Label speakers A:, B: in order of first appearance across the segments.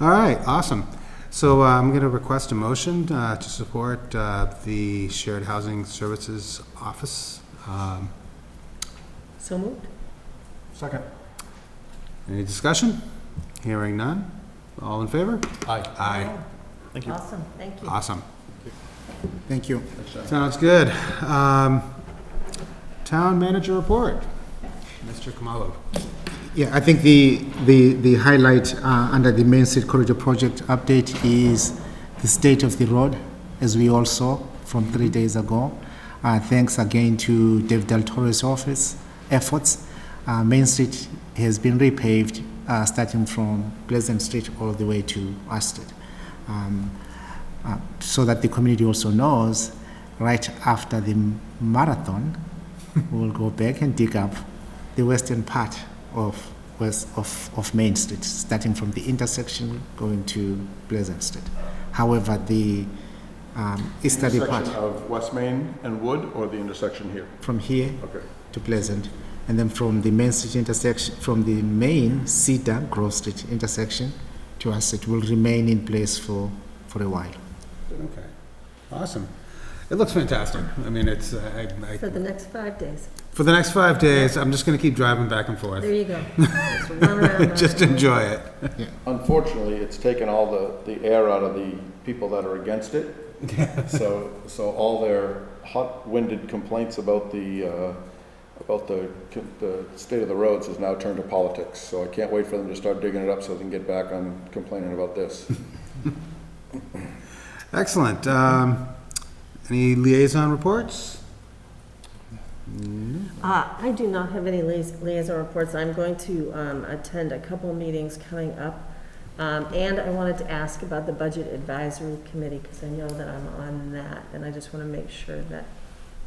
A: All right, awesome. So uh, I'm going to request a motion uh, to support uh, the Shared Housing Services Office. Um,
B: So moved.
C: Second.
A: Any discussion? Hearing none? All in favor?
C: Aye.
A: Aye.
C: Thank you.
B: Awesome, thank you.
A: Awesome.
D: Thank you.
A: Sounds good. Um, Town manager report. Mr. Kamalo.
D: Yeah, I think the, the, the highlight uh, under the Main Street Corridor Project update is the state of the road, as we all saw from three days ago. Uh, Thanks again to Dave Del Toro's office efforts. uh, Main Street has been repaved, uh, starting from Pleasant Street all the way to Astor. Um, uh, so that the community also knows, right after the marathon, we'll go back and dig up the western part of, west, of, of Main Street, starting from the intersection going to Pleasant Streat. However, the um, easterly part
C: Intersection of West Main and Wood, or the intersection here?
D: from here
C: Okay.
D: to Pleasant, and then from the Main Street intersection, from the main Cedar Grove Street intersection to us, it will remain in place for, for a while.
A: Okay, awesome. It looks fantastic. I mean, it's, uh, I,
B: For the
A: I,
B: next five days.
A: for the next five days, I'm just going to keep driving back and forth.
B: There you go. Just run around, run
A: Just
B: around.
A: enjoy it.
C: Unfortunately, it's taken all the, the air out of the people that are against it. So, so all their hot-winded complaints about the, uh, about the, the state of the roads is now turned to politics. So I can't wait for them to start digging it up so they can get back on complaining about this.
A: Excellent. Um, Any liaison reports?
B: Uh, I do not have any liais- liaison reports. I'm going to um, attend a couple meetings coming up. Um, And I wanted to ask about the Budget Advisory Committee, because I know that I'm on that, and I just want to make sure that,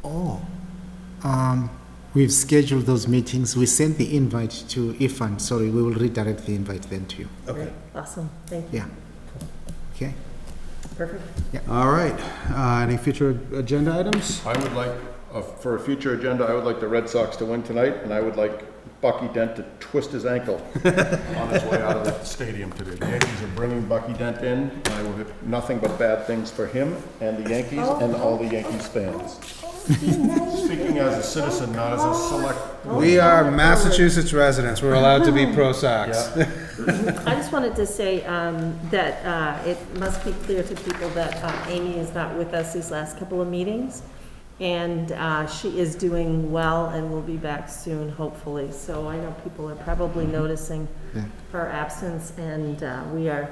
D: Oh, um, we've scheduled those meetings. We sent the invite to Ifan. Sorry, we will redirect the invite then to you.
B: great, awesome, thank you,
D: Yeah. Okay.
B: perfect.
A: All right. Uh, Any future agenda items?
C: I would like, uh, for a future agenda, I would like the Red Sox to win tonight, and I would like Bucky Dent to twist his ankle on his way out of the stadium today. The Yankees are bringing Bucky Dent in, and I would have nothing but bad things for him and the Yankees and all the Yankees fans. Speaking as a citizen, not as a select.
A: Oh. We are Massachusetts residents. We're allowed to be pro Sox.
C: Yeah.
B: I just wanted to say um, that uh, it must be clear to people that uh, Amy is not with us these last couple of meetings, and uh, she is doing well and will be back soon, hopefully. So I know people are probably noticing
D: Yeah.
B: her absence, and uh, we are,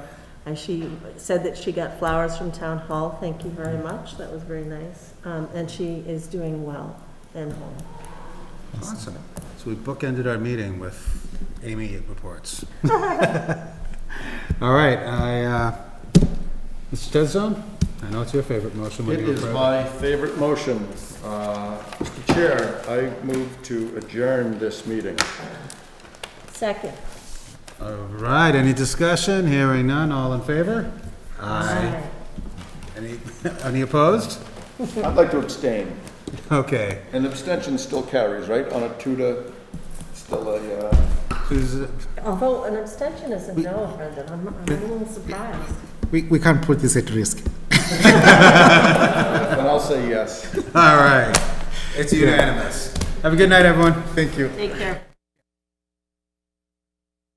B: and she said that she got flowers from Town Hall. Thank you very much, that was very nice. Um, And she is doing well and home.
A: Awesome. So we bookended our meeting with Amy reports. All right, I, uh, Mr. Tedzone, I know it's your favorite motion. when
C: It
A: you
C: is
A: approve.
C: my favorite motion. Uh, Mr. Chair, I move to adjourn this meeting.
B: Second.
A: All right, any discussion? Hearing none, all in favor? Aye. Any, any opposed?
C: I'd like to abstain.
A: Okay.
C: And abstention still carries, right, on a two to, still a, uh,
A: Who's,
B: Although an abstention is a no, Brendan, I'm I'm a little surprised.
D: We, we can't put this at risk.
C: and I'll say yes.
A: All right. It's unanimous. Have a good night, everyone. Thank you.
B: Take care.